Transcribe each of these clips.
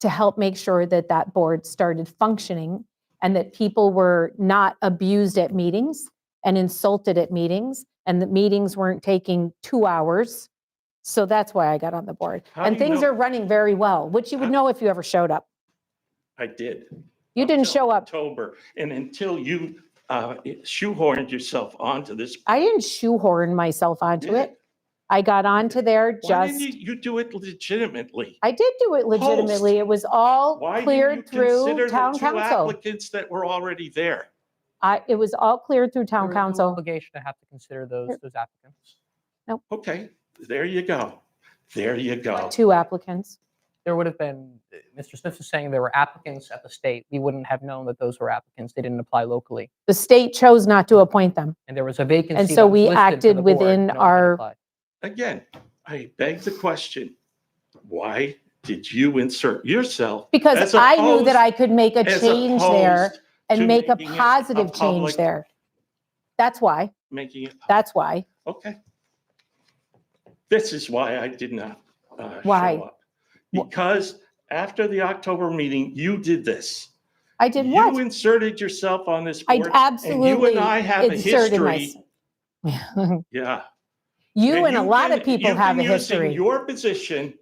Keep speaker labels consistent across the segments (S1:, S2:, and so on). S1: to help make sure that that board started functioning and that people were not abused at meetings and insulted at meetings and that meetings weren't taking two hours. So that's why I got on the board.
S2: How do
S1: And
S2: you
S1: things
S2: know-
S1: are running very well, which you would
S2: How-
S1: know if you ever showed up.
S2: I did.
S1: You didn't
S2: until
S1: show up.
S2: October. And until you uh, shoehorned yourself onto this.
S1: I didn't shoehorn myself onto
S2: Yeah.
S1: it. I got onto there
S2: Why didn't
S1: just,
S2: you, you do it legitimately?
S1: I did do it legitimately. It was all
S2: Why didn't you
S1: cleared
S2: consider
S1: through
S2: the
S1: town
S2: two
S1: council.
S2: applicants that were already there?
S1: I, it was all cleared through town
S3: There is no
S1: council.
S3: Obligation to have to consider those, those applicants.
S2: Okay, there you go. There you go.
S1: Two applicants.
S3: There would have been, Mr. Smith is saying there were applicants at the state. We wouldn't have known that those were applicants. They didn't apply locally.
S1: The state chose not to appoint them.
S3: And there was a vacancy.
S1: so
S3: that was
S1: we
S3: listed for
S1: acted
S3: the board,
S1: within
S3: no one had
S1: our-
S3: applied.
S2: Again, I beg the question, why did you insert yourself?
S1: Because
S2: As
S1: I knew that
S2: opposed-
S1: I could make a
S2: as
S1: change there
S2: opposed to
S1: and make a
S2: making it a
S1: positive change
S2: public-
S1: there. That's why,
S2: Making it, public?
S1: that's why.
S2: okay. This is why I did not uh, show
S1: Why?
S2: up.
S1: Wh-
S2: Because after the October meeting, you did this.
S1: I did what?
S2: You inserted yourself on this
S1: I
S2: board.
S1: absolutely
S2: And you and I have a
S1: inserted
S2: history.
S1: myself.
S2: Yeah.
S1: You and a lot
S2: can-
S1: of people
S2: you've
S1: have a
S2: been using
S1: history.
S2: Your position,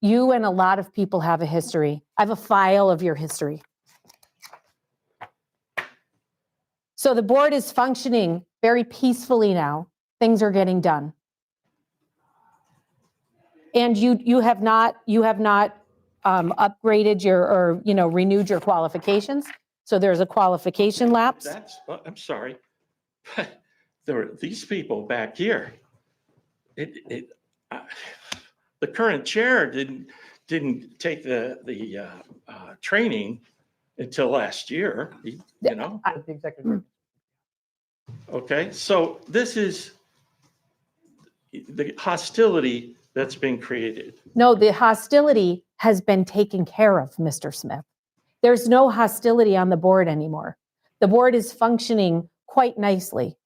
S1: You and a lot of people have a history. I have a file of your history. So the board is functioning very peacefully now. Things are getting done. And you, you have not, you have not um, upgraded your, or, you know, renewed your qualifications. So there's a qualification lapse.
S2: that's, uh, I'm sorry. There are these people back here. It, it, I- the current chair didn't, didn't take the, the uh, uh, training until last year, you you know?
S1: uh,
S3: But The
S1: mm,
S3: executive director
S2: Okay, so this is the hostility that's been created.
S1: No, the hostility has been taken care of, Mr. Smith. There's no hostility on the board anymore. The board is functioning quite nicely.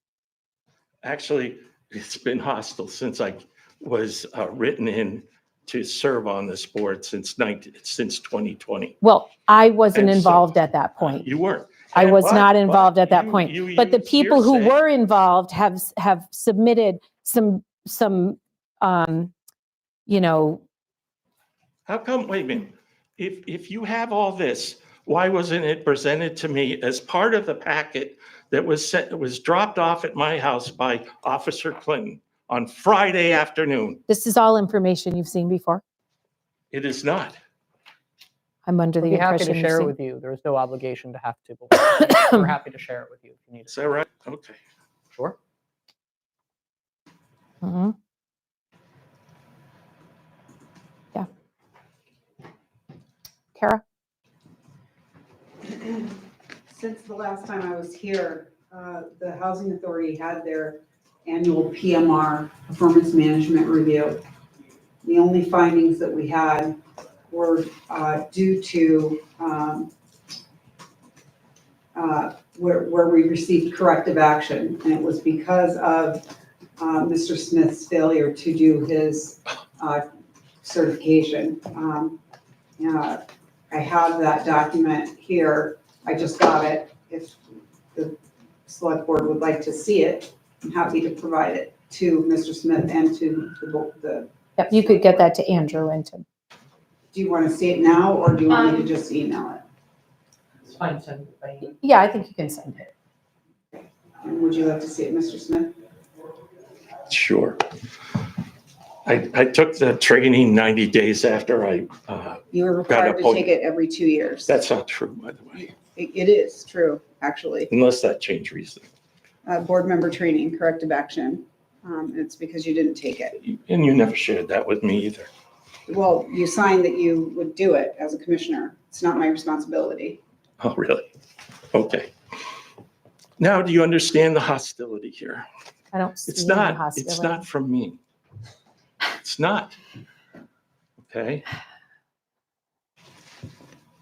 S2: Actually, it's been hostile since I was uh, written in to serve on this board since 19, since 2020.
S1: Well, I wasn't
S2: And so-
S1: involved at that point.
S2: You weren't.
S1: I was
S2: But-
S1: not
S2: but
S1: involved at that
S2: you- you
S1: point. But the
S2: used
S1: people who
S2: hearsay.
S1: were involved have, s- have submitted some, some, um, you know,
S2: How come, wait a minute, if, if you have all this, why wasn't it presented to me as part of the packet that was sent, that was dropped off at my house by Officer Clinton on Friday afternoon?
S1: this is all information you've seen before.
S2: It is not.
S1: I'm under
S3: We'd
S1: the
S3: be happy
S1: impression
S3: to
S1: you've
S3: share it
S1: seen.
S3: with you. There is no obligation to have to. but We're happy to share it with you if you need
S2: Is
S3: it.
S2: that right? Okay.
S3: Sure.
S1: Mhm. Yeah. Kara?
S4: Since the last time I was here, uh, the Housing Authority had their annual PMR, Performance Management Review. The only findings that we had were uh, due to um, uh, where where we received corrective action, and it was because of uh, Mr. Smith's failure to do his uh, certification. Um, yeah, I have that document here. I just got it. If the select board would like to see it, I'm happy to provide it to Mr. Smith and to the, bo- the,
S1: Yep, you could get that to Andrew and to,
S4: do you want to see it now or do you want me to just email it?
S3: It's fine, send it by email.
S1: yeah, I think you can send it.
S4: And would you like to see it, Mr. Smith?
S2: Sure. I, I took the training 90 days after I, uh,
S4: You
S2: Got
S4: are required
S2: it,
S4: to
S2: hold-
S4: take it every two years.
S2: that's not true, by the way,
S4: It it is true, actually.
S2: unless that changed recently.
S4: Uh, board member training, corrective action. Um, it's because you didn't take it.
S2: And you never shared that with me either.
S4: Well, you signed that you would do it as a commissioner. It's not my responsibility.
S2: Oh, really? Okay. Now, do you understand the hostility here?
S1: I don't see
S2: It's
S1: any
S2: not, it's
S1: hostility.
S2: not from me. It's not. Okay?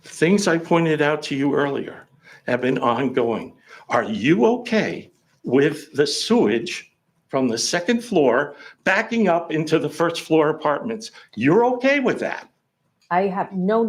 S2: Things I pointed out to you earlier have been ongoing. Are you okay with the sewage from the second floor backing up into the first floor apartments? You're okay with that?
S1: I have no